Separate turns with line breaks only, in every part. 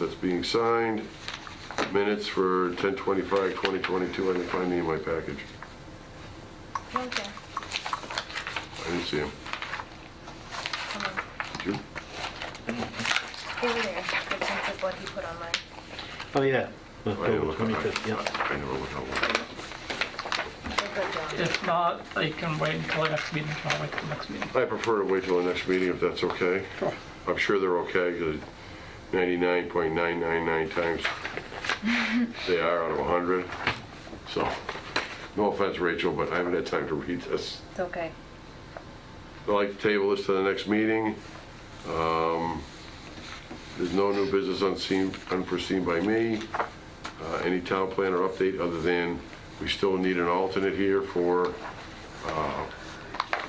that's being signed, minutes for 10/25/2022, I didn't find any in my package.
Okay.
I didn't see them.
Hold on.
Did you?
They were there, the sense of what he put on mine.
Oh, yeah.
I didn't
October
look at- I-
25th, yeah.
I never looked at one.
They're good, John.
If not, they can wait until the next meeting, I'll wait till the next meeting.
I prefer to wait till the next meeting if that's okay. I'm sure they're okay, because 99.999 times they are out of 100. So, no offense, Rachel, but I haven't had time to read this.
It's okay.
I'd like to table this to the next meeting. Um, There's no new business unseen, unforeseen by me. Uh, Any town planner update other than we still need an alternate here for uh,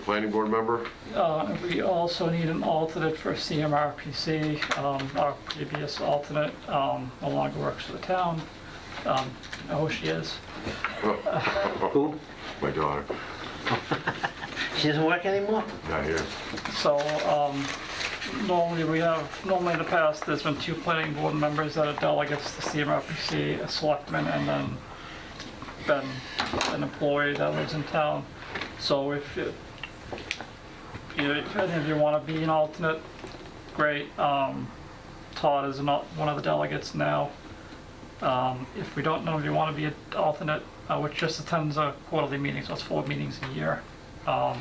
planning board member?
Uh, We also need an alternate for CMRPC. Um, Our previous alternate um, no longer works for the town. Um, I know who she is.
Who?
My daughter,
She doesn't work anymore?
not here.
So um, normally we have, normally in the past, there's been two planning board members that are delegates to CMRPC, a selectman, and then been an employee that lives in town. So if you, you know, if any of you want to be an alternate, great. Um, Todd is not one of the delegates now. Um, If we don't know if you want to be an alternate, uh, which just attends a quarterly meeting, so it's four meetings a year. Um,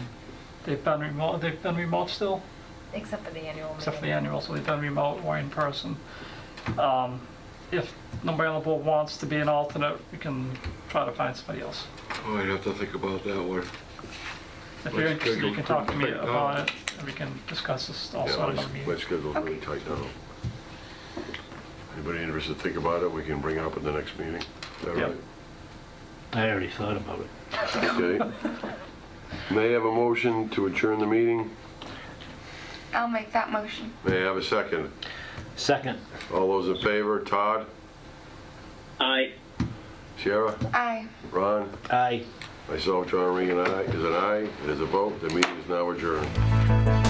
They've been remote, they've been remote still,
Except for the annual meeting.
except for the annual, so they've been remote or in person. Um, If nobody on the board wants to be an alternate, we can try to find somebody else.
Oh, I'd have to think about that one.
If you're
Let's
interested, you
schedule
can talk to me
something.
about it, and we can discuss this
Yeah,
also at another
my- my
meeting.
schedule's really tight now. Anybody interested, think about it, we can bring it up at the next meeting. Is that
Yep.
right?
I already thought about it.
Okay. May I have a motion to adjourn the meeting?
I'll make that motion.
May I have a second?
Second.
All those in favor, Todd,
Aye.
Sierra,
Aye.
Ron,
Aye.
myself, John Regan, aye, is an aye, it is a vote, the meeting is now adjourned.